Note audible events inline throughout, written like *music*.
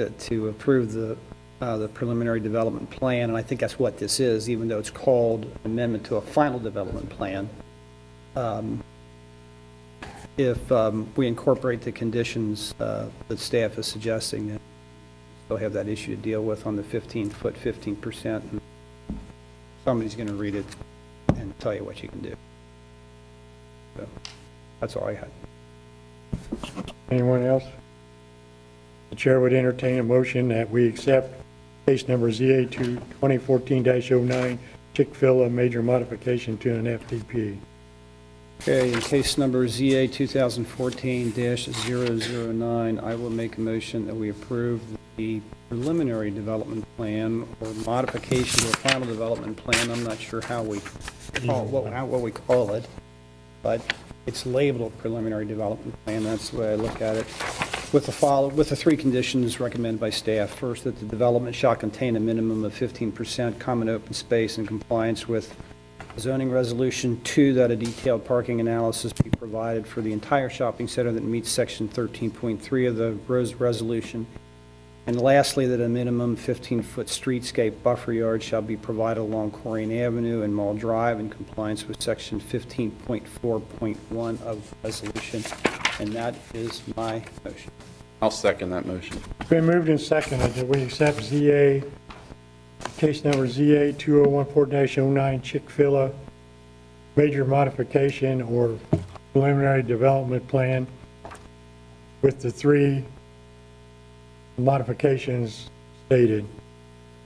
uh, to approve the, uh, the preliminary development plan, and I think that's what this is, even though it's called amendment to a final development plan. Um, If um, we incorporate the conditions uh, that staff is suggesting, then they'll have that issue to deal with on the 15-foot, 15%. and Somebody's going to read it and tell you what you can do. So, That's all I had. Anyone else? The chair would entertain a motion that we accept case number ZA 2 2014-09, Chick-fil-A major modification to an FDP. Okay, in case number ZA 2014-009, I will make a motion that we approve the preliminary development plan or modification to a final development plan. I'm not sure how we, call what, how- what we call it, but it's labeled preliminary development plan, that's the way I look at it, with the follow, with the three conditions recommended by staff. First, that the development shall contain a minimum of 15% common open space in compliance with zoning resolution two, that a detailed parking analysis be provided for the entire shopping center that meets section 13.3 of the Rose Resolution. And lastly, that a minimum 15-foot streetscape buffer yard shall be provided along Corrine Avenue and Mall Drive in compliance with section 15.4.1 of the resolution. And that is my motion. I'll second that motion. It's been moved and seconded that we accept ZA, case number ZA 2014-09, Chick-fil-A major modification or preliminary development plan with the three modifications stated.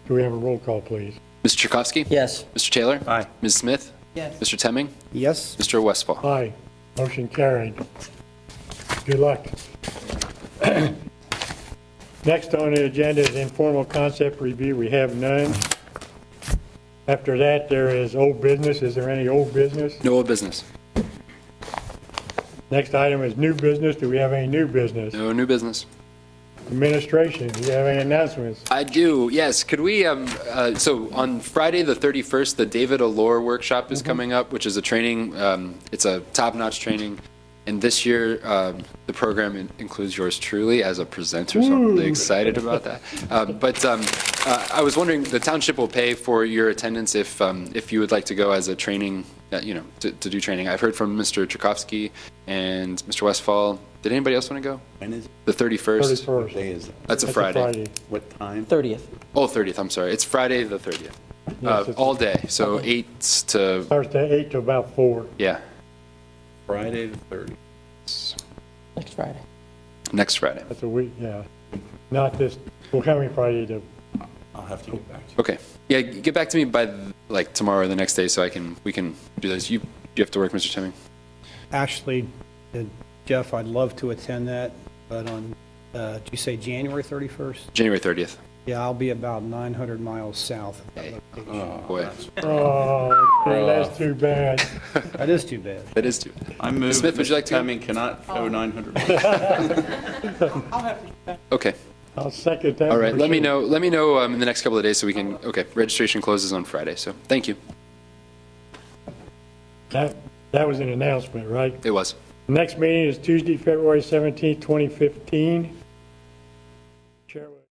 Do we have a roll call, please? Mr. Tchaikovsky? Yes. Mr. Taylor? Aye. Ms. Smith? Yes. Mr. Temming? Yes? Mr. Westfall? Aye. Motion carried. Good luck. *clears throat* Next on the agenda is informal concept review. We have none. After that, there is old business. Is there any old business? No old business. Next item is new business. Do we have any new business? No new business. Administration, do you have any announcements? I do, yes. Could we, um, uh, so on Friday, the 31st, the David Allure workshop is coming up, which is a training, um, it's a top-notch training. And this year, um, the program in- includes yours truly as a presenter, so I'm really excited about that. Um, But um, uh, I was wondering, the township will pay for your attendance if, um, if you would like to go as a training, uh, you know, to to do training. I've heard from Mr. Tchaikovsky and Mr. Westfall. Did anybody else want to go? When is, The 31st? 31st. day is, That's a That's Friday. what time? 30th. Oh, 30th, I'm sorry. It's Friday, the 30th. Uh, it's- all day, so 8 to, Starts at 8 to about 4. yeah, Friday the 30th. Next Friday. next Friday. That's a week, yeah. Not this, well, coming Friday *laughs* to, I'll have to get back to you. Okay. Yeah, get back to me by, like, tomorrow or the next day so I can, we can do this. You, you have to work, Mr. Timming? Actually, uh, Jeff, I'd love to attend that, but on, uh, did you say January 31st? January 30th. Yeah, I'll be about 900 miles south of that Hey. location. Boy, oh, that's too bad. That is too bad. that is too. I move. Smith, would you like to go? I mean, cannot go *laughs* 900. Okay. I'll second that. All right. for Let me sure. know, let me know um, in the next couple of days so we can, okay, registration closes on Friday, so thank you. That, that was an announcement, right? It was. Next meeting is Tuesday, February 17, 2015.